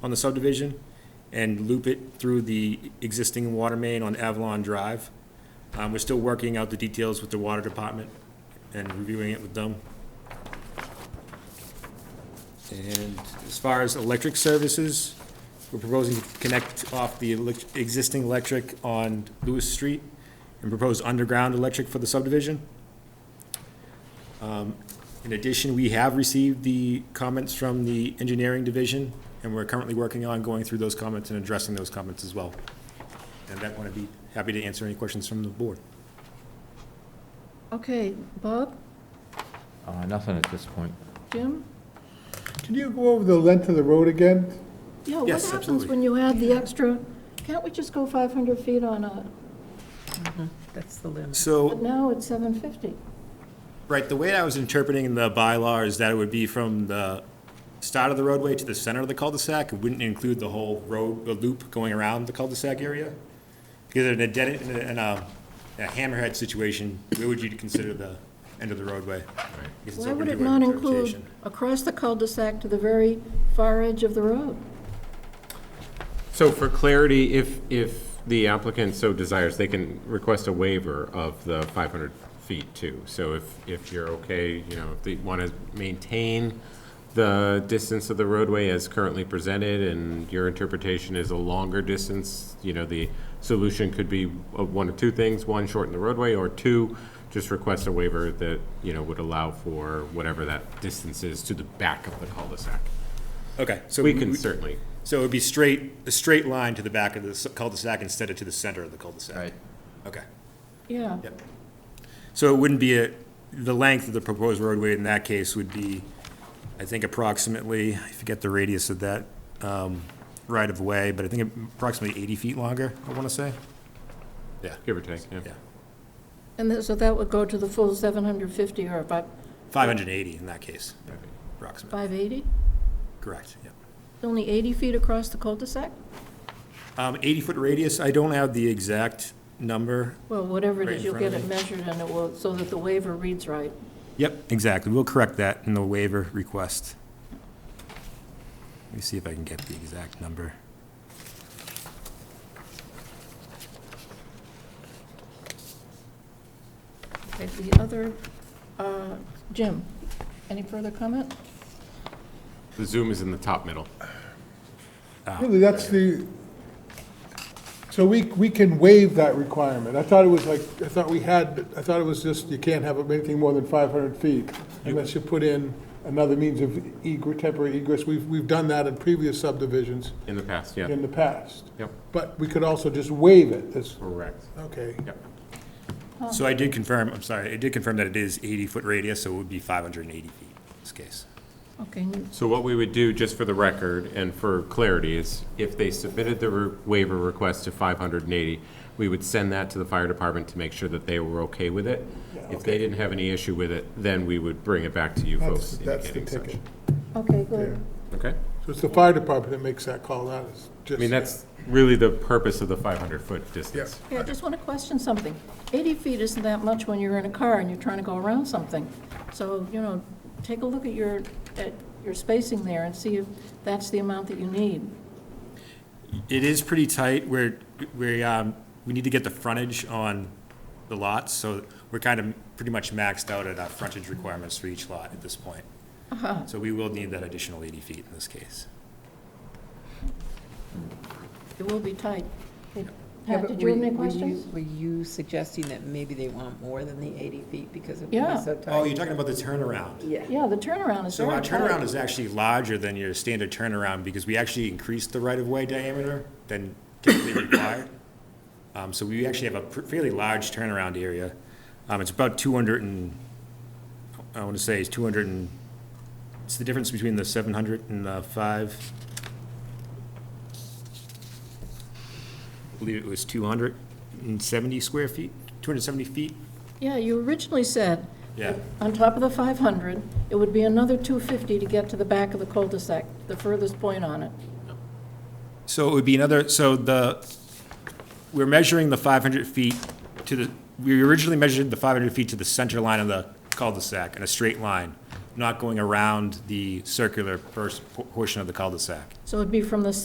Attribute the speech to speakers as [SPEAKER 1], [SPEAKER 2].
[SPEAKER 1] on the subdivision and loop it through the existing water main on Avalon Drive. Um, we're still working out the details with the water department and reviewing it with them. And as far as electric services, we're proposing to connect off the elec- existing electric on Lewis Street and propose underground electric for the subdivision. Um, In addition, we have received the comments from the engineering division, and we're currently working on going through those comments and addressing those comments as well. And that one, I'd be happy to answer any questions from the board.
[SPEAKER 2] Okay, Bob,
[SPEAKER 3] Uh, Nothing at this point.
[SPEAKER 2] Jim?
[SPEAKER 4] Can you go over the length of the road again?
[SPEAKER 2] Yeah, what
[SPEAKER 1] Yes,
[SPEAKER 2] happens
[SPEAKER 1] absolutely.
[SPEAKER 2] when you add the extra, can't we just go 500 feet on a,
[SPEAKER 5] That's the limit.
[SPEAKER 2] but
[SPEAKER 1] So,
[SPEAKER 2] now it's 750?
[SPEAKER 1] right, the way I was interpreting the bylaw is that it would be from the start of the roadway to the center of the cul-de-sac. It wouldn't include the whole road, the loop going around the cul-de-sac area. Because in a dead, in a- in a a hammerhead situation, where would you consider the end of the roadway? Because it's
[SPEAKER 2] Why
[SPEAKER 1] open
[SPEAKER 2] would
[SPEAKER 1] to
[SPEAKER 2] it
[SPEAKER 1] your
[SPEAKER 2] not
[SPEAKER 1] interpretation.
[SPEAKER 2] include across the cul-de-sac to the very far edge of the road?
[SPEAKER 6] So for clarity, if, if the applicant so desires, they can request a waiver of the 500 feet too. So if, if you're okay, you know, if they want to maintain the distance of the roadway as currently presented and your interpretation is a longer distance, you know, the solution could be of one of two things. One, shorten the roadway, or two, just request a waiver that, you know, would allow for whatever that distance is to the back of the cul-de-sac.
[SPEAKER 1] Okay, so.
[SPEAKER 6] We can certainly
[SPEAKER 1] So it would be straight, a straight line to the back of the s- cul-de-sac instead of to the center of the cul-de-sac? Okay.
[SPEAKER 2] Yeah,
[SPEAKER 1] Yep. So it wouldn't be a, the length of the proposed roadway in that case would be, I think approximately, I forget the radius of that, um, right of way, but I think approximately eighty feet longer, I wanna say.
[SPEAKER 6] give or take, yeah.
[SPEAKER 1] Yeah.
[SPEAKER 2] and then- so that would go to the full 750 or about
[SPEAKER 1] Five hundred and eighty in that case, approximately,
[SPEAKER 2] 580?
[SPEAKER 1] correct, yeah.
[SPEAKER 2] Only 80 feet across the cul-de-sac?
[SPEAKER 1] Um, eighty-foot radius, I don't have the exact number.
[SPEAKER 2] Well, whatever it
[SPEAKER 1] Right in
[SPEAKER 2] is, you'll
[SPEAKER 1] front
[SPEAKER 2] get
[SPEAKER 1] of
[SPEAKER 2] it measured and it will, so that the waiver reads right.
[SPEAKER 1] Yep, exactly, we'll correct that in the waiver request. Let me see if I can get the exact number.
[SPEAKER 2] Okay, the other, uh, Jim, any further comment?
[SPEAKER 6] The zoom is in the top middle. Ah,
[SPEAKER 4] Really, that's the, so we, we can waive that requirement. I thought it was like, I thought we had, I thought it was just, you can't have anything more than 500 feet unless you put in another means of egre- temporary egress. We've, we've done that in previous subdivisions
[SPEAKER 6] In the past, yeah.
[SPEAKER 4] in the past.
[SPEAKER 6] Yep.
[SPEAKER 4] But we could also just waive it, That's
[SPEAKER 6] Correct.
[SPEAKER 4] okay.
[SPEAKER 6] Yep.
[SPEAKER 1] So I did confirm, I'm sorry, I did confirm that it is 80-foot radius, so it would be 580 feet in this case.
[SPEAKER 2] Okay,
[SPEAKER 6] So what we would do, just for the record and for clarity, is if they submitted the re- waiver request to 580, we would send that to the fire department to make sure that they were okay with it. If they didn't have any issue with it, then we would bring it back to you
[SPEAKER 4] That's,
[SPEAKER 6] folks
[SPEAKER 4] that's the
[SPEAKER 6] indicating such.
[SPEAKER 4] ticket.
[SPEAKER 2] okay, good.
[SPEAKER 6] Okay?
[SPEAKER 4] So it's the fire department that makes that call, not us.
[SPEAKER 6] I mean, that's really the purpose of the 500-foot distance.
[SPEAKER 2] Okay, I just want to question something. 80 feet isn't that much when you're in a car and you're trying to go around something. So, you know, take a look at your, at your spacing there and see if that's the amount that you need.
[SPEAKER 1] It is pretty tight, we're, we, um, we need to get the frontage on the lots, so we're kind of pretty much maxed out at our frontage requirements for each lot at this point. So we will need that additional 80 feet in this case.
[SPEAKER 2] It will be tight. Hey,
[SPEAKER 5] Yeah,
[SPEAKER 2] Pat,
[SPEAKER 5] but
[SPEAKER 2] did you have
[SPEAKER 5] were-
[SPEAKER 2] any
[SPEAKER 5] were you-
[SPEAKER 2] questions?
[SPEAKER 5] Were you suggesting that maybe they want more than the 80 feet because it would
[SPEAKER 2] Yeah.
[SPEAKER 5] be so
[SPEAKER 1] Oh,
[SPEAKER 5] tight?
[SPEAKER 1] you're talking about the turnaround?
[SPEAKER 5] Yeah.
[SPEAKER 2] Yeah, the turnaround is
[SPEAKER 1] So
[SPEAKER 2] very
[SPEAKER 1] our
[SPEAKER 2] tight.
[SPEAKER 1] turnaround is actually larger than your standard turnaround because we actually increased the right-of-way diameter than typically required. Um, so we actually have a pr- fairly large turnaround area. Um, it's about two hundred and, I want to say it's two hundred and, it's the difference between the seven hundred and the five. I believe it was two hundred and seventy square feet, two hundred and seventy feet.
[SPEAKER 2] Yeah, you originally said,
[SPEAKER 1] Yeah.
[SPEAKER 2] on top of the 500, it would be another 250 to get to the back of the cul-de-sac, the furthest point on it.
[SPEAKER 1] So it would be another, so the, we're measuring the 500 feet to the, we originally measured the 500 feet to the center line of the cul-de-sac in a straight line. not going around the circular first portion of the cul-de-sac.
[SPEAKER 2] So it'd be from the